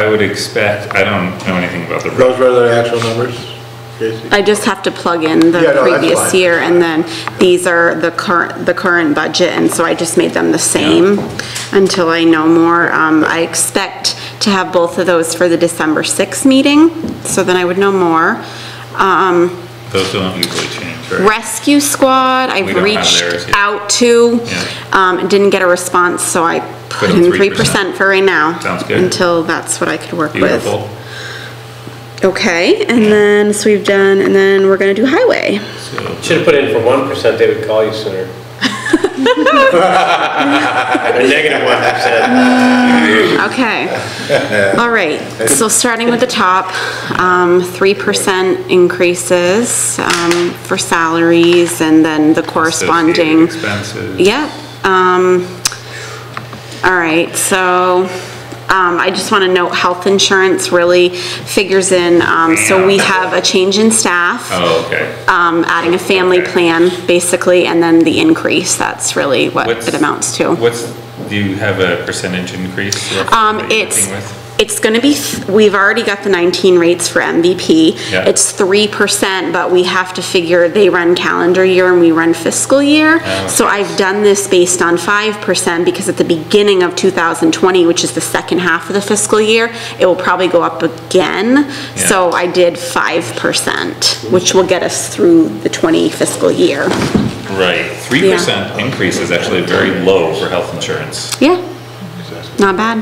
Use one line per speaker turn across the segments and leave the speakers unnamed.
I would expect, I don't know anything about the,
Those were the actual numbers, Casey?
I just have to plug in
Yeah, no,
the
that's
previous
fine.
year, and then these are the current, the current budget, and so I just made them the same until I know more. Um, I expect to have both of those for the December 6th meeting, so then I would know more. Um,
those don't usually change, right?
Rescue Squad,
We
I've
don't have
reached
theirs yet.
out to,
Yeah.
um, didn't get a response, so I put
Put in
in
3%.
3% for right now.
Sounds good.
Until that's what I could work with.
Beautiful.
Okay, and then, so we've done, and then we're gonna do highway.
So,
Should've put in for one percent, they would call you sooner. A negative one percent.
Okay, all right, so starting with the top, um, 3% increases, um, for salaries and then the
associated
corresponding.
Expenses.
Yep, um, all right, so, um, I just wanna note, health insurance really figures in, um, so we have a change in staff.
Oh, okay.
um, adding a family
Okay.
plan, basically, and then the increase, that's really what
What's-
it amounts to.
What's, do you have a percentage increase? roughly
Um,
that you're
it's,
working with?
it's gonna be, th- we've already got the 19 rates for MVP.
Yeah.
It's 3%, but we have to figure, they run calendar year and we run fiscal
Oh,
year. So I've done this based on 5% because at the beginning of 2020, which is the second half of the fiscal year, it will probably go up again.
Yeah.
So I did 5%, which will get us through the 20 fiscal year.
Right, three percent increase is actually very low for health insurance.
Yeah, not bad.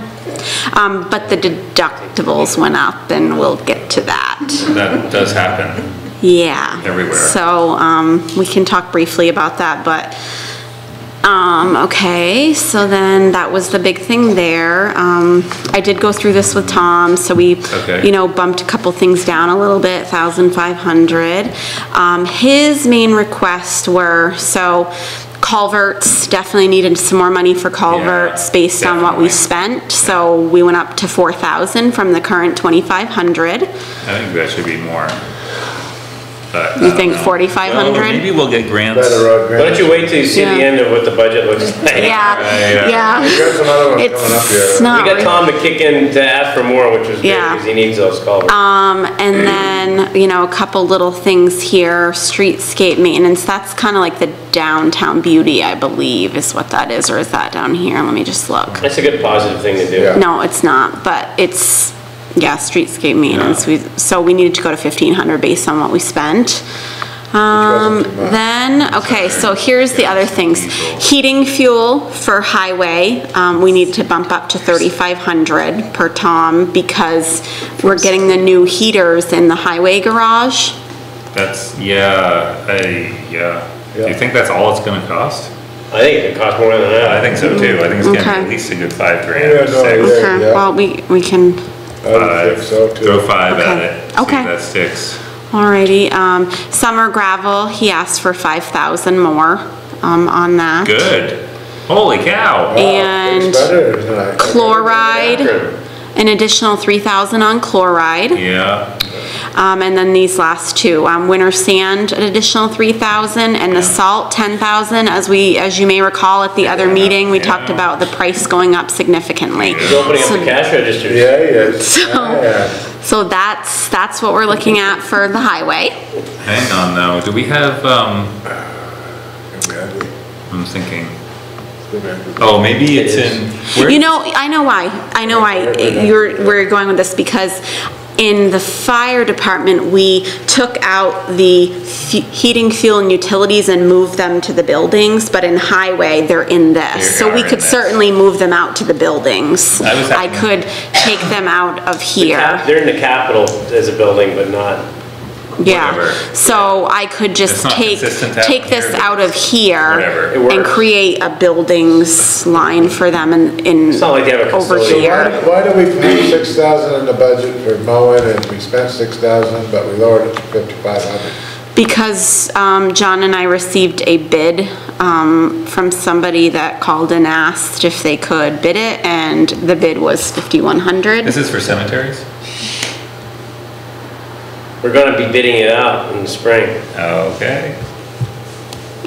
Um, but the deductibles went up and we'll get to that.
That does happen.
Yeah.
Everywhere.
So, um, we can talk briefly about that, but, um, okay, so then that was the big thing there. Um, I did go through this with Tom, so we,
Okay.
you know, bumped a couple things down a little bit, thousand five hundred. Um, his main requests were, so culverts, definitely needed some more money for culverts based on what we
definitely.
spent. So we went up to four thousand from the current twenty-five hundred.
I think that should be more. but I
You
don't
think
know.
forty-five
Well, Maybe
hundred?
we'll get grants.
Better road
Why don't
grant.
you wait till you see the
Yeah.
end of what the budget looks like?
Yeah,
We
yeah.
got some other ones coming up
It's
here.
We
not.
got
re-
Tom to kick in to ask for more, which was good,
Yeah.
because he needs those culverts.
Um, and then, you know, a couple little things here, streetscape maintenance, that's kind of like the downtown beauty, I believe, is what that is, or is that down here? Let me just look.
That's a good positive thing to
Yeah.
do.
No, it's not, but it's, yeah, streetscape maintenance, we, so we needed to go to fifteen hundred based on what we spent. Um,
wasn't too much.
then, okay, so here's the other things. Heating fuel for highway, um, we need to bump up to thirty-five hundred per tom because we're getting the new heaters in the highway garage.
That's, yeah, I, yeah. Do you
Yeah.
think that's all it's gonna cost?
I think it could cost more than
I
that.
think so too. I think it's gonna be at
Okay.
least a good five
Yeah, no,
grand, six,
yeah.
Okay, well, we, we can,
I would
five,
think so
throw
too.
oh five at
Okay.
it. see if
Okay.
That sticks.
alrighty, um, summer gravel, he asked for five thousand more, um, on that.
Good. Holy cow.
And
It's better than I-
Chloride, an additional three thousand on chloride.
Yeah,
Um, and then these last two, um, winter sand, an additional three thousand, and the salt, ten thousand. As we, as you may recall, at the other meeting, we talked
Yeah.
about the price going up significantly.
He's opening up the cash registers.
Yeah, yes,
So-
yeah.
So that's, that's what we're looking at for the highway.
hang on though, do we have, um, I'm thinking, oh, maybe it's in, where?
You know, I know why, I know why you're, we're going with this, because in the fire department, we took out the fu- heating, fuel, and utilities and moved them to the buildings, but in highway, they're in this.
They
So we
are in
could
this.
certainly move them out to the buildings.
I was
I
having-
could take them out of
Cap-
here,
They're in the capital as a building, but not,
whatever.
yeah. So I could
It's
just
not
take,
consistent to have
take
them
this
here, but
out of
whatever.
here
It
and
works.
create a buildings line for them in, in,
it's not like they have a
over
facility.
here.
Why do we put six thousand in the budget for mowing and we spent six thousand, but we lowered it to fifty-five hundred?
Because um, John and I received a bid um, from somebody that called and asked if they could bid it, and the bid was 5,100.
This is for cemeteries?
We're gonna be bidding it out in the spring.
Okay.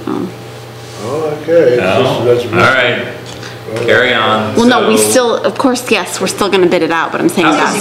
Oh, okay.
Oh,
That's-
all
that's-
right, carry on.
Well, no, we
So-
still, of course, yes, we're still gonna bid it out, but I'm saying
How does
that's
he